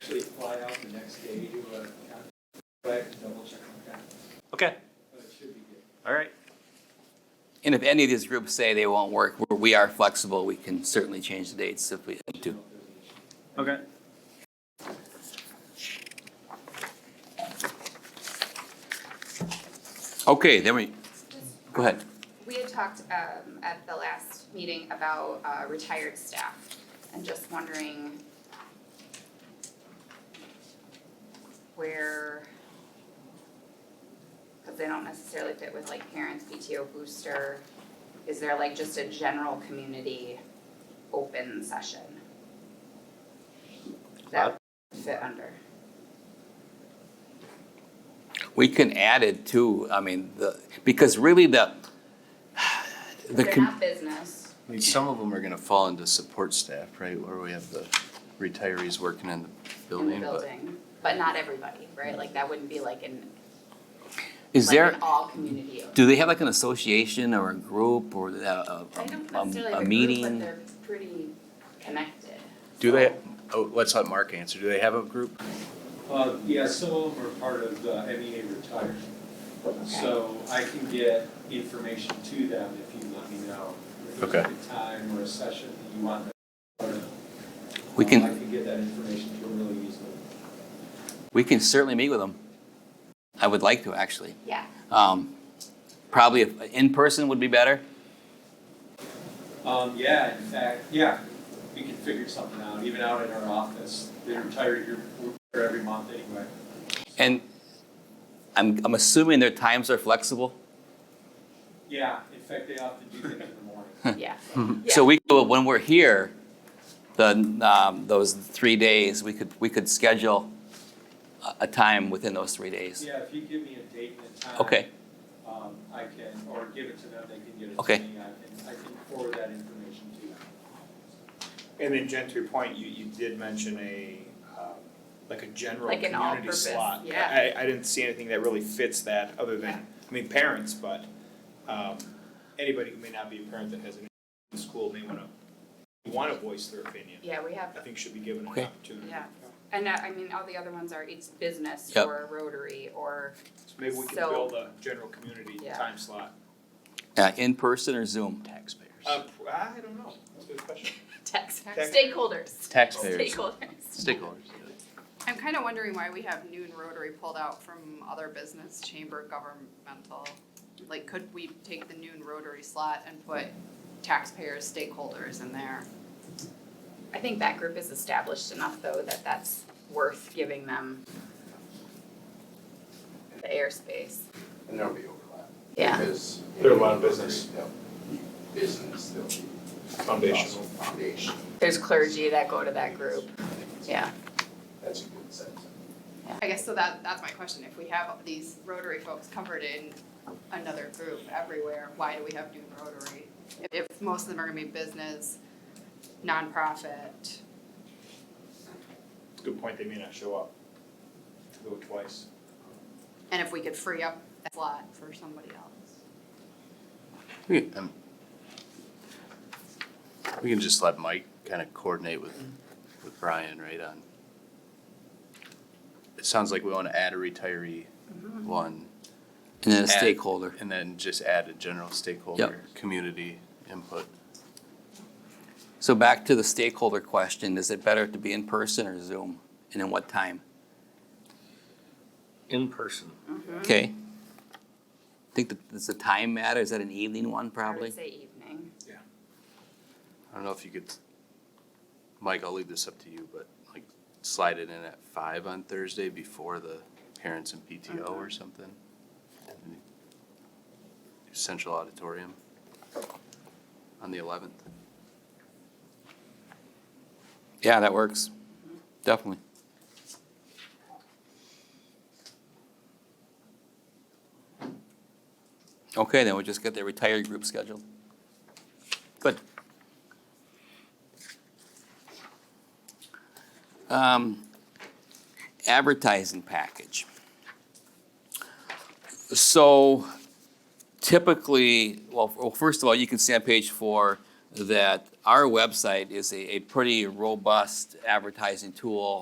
fly out the next day to a contract, double check on that, Okay, but it should be good. all right. And if any of these groups say they won't work, we- we are flexible, we can certainly change the dates if we need to. Okay. Okay, then we, go ahead. We had talked um at the last meeting about uh retired staff and just wondering where cause they don't necessarily fit with like parents, PTO booster, is there like just a general community open session? That fit under, We can add it too, I mean, the, because really the, the, they're com- not business, I mean, some of them are gonna fall into support staff, right, where we have the retirees working in the in the building, but building, but not everybody, right, like that wouldn't be like an is like there, an all community. do they have like an association or a group or a, I don't um, a, necessarily a, have a a meeting? group, but they're pretty connected. do they, So, oh, let's let Mark answer, do they have a group? Uh, yeah, some of them are part of the MEA retired, so I can get information to them if you let me know. If there's Okay. a time or a session that you want them. Um, We can- I can get that information to them really easily. We can certainly meet with them. I would like to, actually. Yeah, Um, probably if, in person would be better. Um, yeah, in fact, yeah, we can figure something out, even out in our office, the retired group, we're there every month anyway. And I'm, I'm assuming their times are flexible. Yeah, in fact, they often do things in the morning. yeah. Mm-hmm. So we, could- when we're here, the, um, those three days, we could, we could schedule a, a time within those three days. Yeah, if you give me a date and a time. Okay, Um, I can, or give it to them, they can get it Okay. to me, I can, I can forward that information to them. And then Jen, to your point, you, you did mention a, um, like a general Like an all community purpose, slot. yeah. I, I didn't see anything that really fits that, other Yeah. than, I mean, parents, but, um, anybody who may not be a parent that has an in school may wanna, wanna voice their opinion. Yeah, we I have, think should be given an Okay. opportunity. yeah. And uh, I mean, all the other ones are, it's business Yep. or Rotary or, So maybe we can So- build a general community Yeah. time slot. uh, in person or Zoom? Taxpayers. Um, Uh, pr- I don't know, that's a good question. tax, Tax- stakeholders. Taxpayers. Stakeholders. Stakeholders. I'm kind of wondering why we have noon Rotary pulled out from other business chamber governmental. Like, could we take the noon Rotary slot and put taxpayers, stakeholders in there? I think that group is established enough though that that's worth giving them the airspace. And there'll be overlap. Yeah. Because. There are a lot of business. There'll be Business, there'll be. Foundational. Foundation, There's clergy that go to that group, yeah. that's a good sense. I guess so that, that's my question. If we have these Rotary folks covered in another group everywhere, why do we have noon Rotary? If most of them are gonna be business, nonprofit, It's a good point, they may not show up. Go twice. and if we could free up that slot for somebody else. We um, we can just let Mike kind of coordinate with, with Brian, right, on. It sounds like we wanna add a retiree one, And then a Add- stakeholder. and then just add a general stakeholder, community input. So back to the stakeholder question, is it better to be in person or Zoom? And in what time? In person. Okay. Think that, does the time matter? Is that an evening one I probably? would say evening. I don't know if you could, Mike, I'll leave this up to you, but like slide it in at five on Thursday before the parents and PTO or something. Central auditorium on the eleventh. Yeah, that works. Definitely. Okay, then we'll just get the retired group scheduled. Good. Um, advertising package. So typically, well, well, first of all, you can see on page four that our website is a, a pretty robust advertising tool